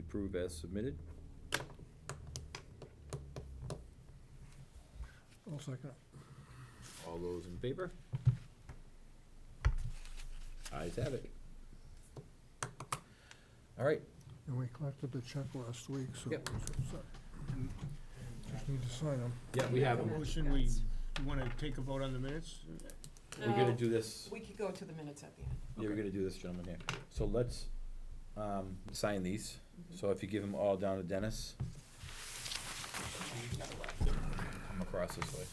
approve as submitted. I'll second. All those in favor? Eyes have it. All right, And we collected the check last week, so. Yep. so- Just need to sign them. yeah, we have them. Motion, we, you wanna take a vote on the minutes? We're gonna do this, We could go to the minutes at the end. yeah, we're gonna do this, gentlemen, here. So let's, um, sign these. Mm-hmm. So if you give them all down to Dennis. Come across this way.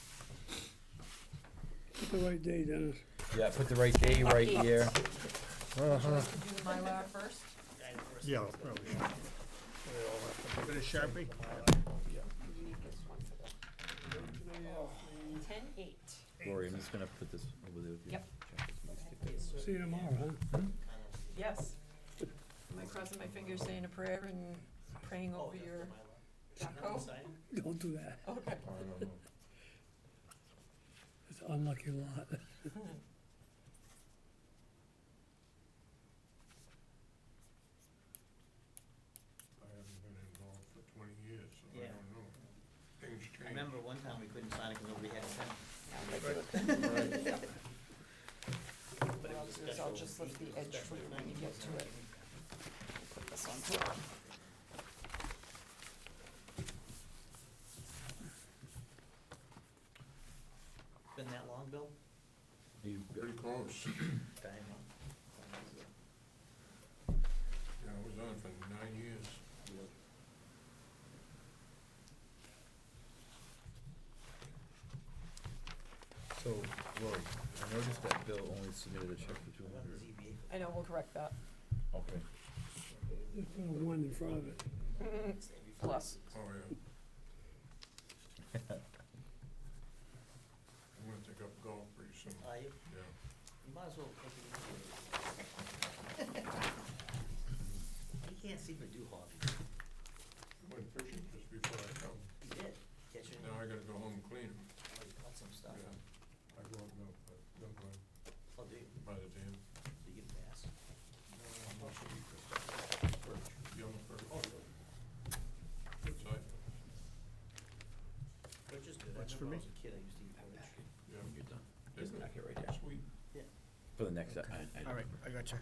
Pick the right day, Dennis. Yeah, put the right day right here. Would you like to do the Mylar first? Yeah, probably. Bit of Sharpie? You need this one for the. Ten eight. Lori, I'm just gonna put this over there. with you. Yep. See you tomorrow, huh? Yes. Am I crossing my fingers saying a prayer and praying over your backhoe? Don't do that. Okay. It's an unlucky lot. I haven't been involved for twenty years, so Yeah. know. Things I remember one time we couldn't sign it because nobody had a pen. But it Well, was a I'll just special- lift it the was a edge for special you when thing, you get to wasn't it. Put this on top. Been that long, Bill? You- Pretty close. Damn. Yeah, I was on for nine years. So, Lori, I noticed that Bill only submitted a check for two hundred. I know, we'll correct that. Okay. Just put a one in front of it. Plus. Oh, yeah. I'm gonna take up golf pretty soon, Uh, you, yeah. you might as well take it easy. He can't seem to do hobbies. Went fishing just before I come. He did. Catch your, Now I gotta go home and clean 'em. oh, he caught some stuff. Yeah. I go up now, but don't go Oh, do you? by the dam. Do you get fast? I'm also eat this perch, yellow perch. Good sight, Which is good. I What's for remember me? when I was a kid, I used to eat porridge. yeah. You're done. They're Just good. back it right there. Sweet. For the next, I, All I, right, I got you.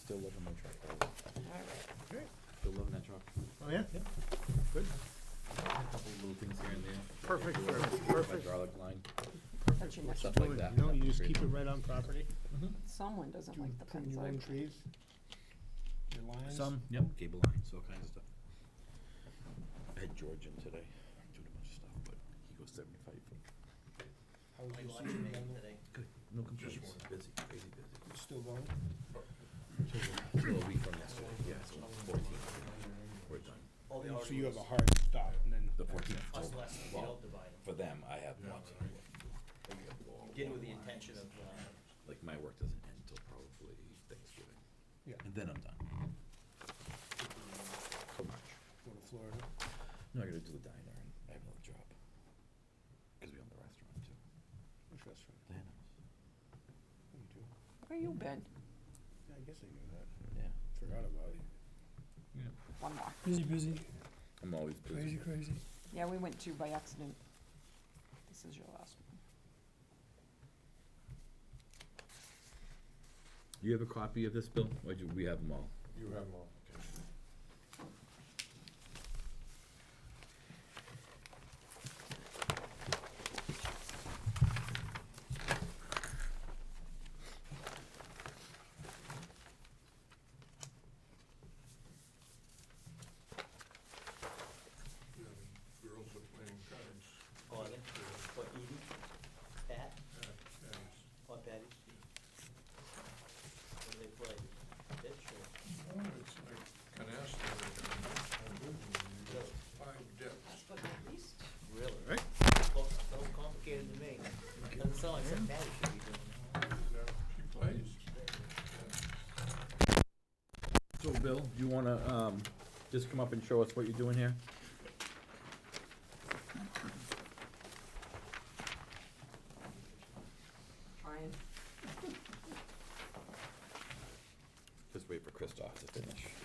still loving my truck. All right. Still loving that truck. Oh, yeah? A couple little things here and there. Perfect, for- perfect. Hydraulic line, That's your next stuff You like that. know, you just keep it right on property. Someone doesn't Do you like the trim pens your I own drew. trees? Your lines? Some, yep, cable lines, all kinds of stuff. I had George in today, doing a bunch of stuff, but he goes seventy-five feet. How was I your watched him season down today. Good, no complaints, one. busy, crazy there? Still going? busy. So a week from yesterday, yeah, so fourteen, we're done. Oh, they So already you have a was. hard stop and then. The fourteenth. Us less, you Well, don't divide them. for them, I have Yeah, one. right. You Did it with the intention of, uh, Like, my work doesn't end till probably Thanksgiving. Yeah. And then I'm done. Till March. Go to Florida. No, I gotta do the diner and I have another job. Cause we own the restaurant too. Which restaurant? Dana. Oh, you do? Where you been? Yeah, I guess I knew that. Yeah. Forgot about it. One more. Busy, busy, I'm always crazy, crazy. Yeah, we went to by accident. This is your last one. You have a copy of this, Bill? Or do we have them all? You have all, okay. Yeah, the girls are playing cards. oh, I think, or Edie, Pat, Yeah, yeah, or Betty. What do they play? Bitch or? it's- It's like canasta. and- and Really? Five depths. But at least. Really? Right. Well, so complicated to me. Doesn't sound like something Patty should be doing. Yeah, She plays. So, Bill, do you wanna, um, just come up and show us what you're doing here? Trying. Just wait for Christoph to finish.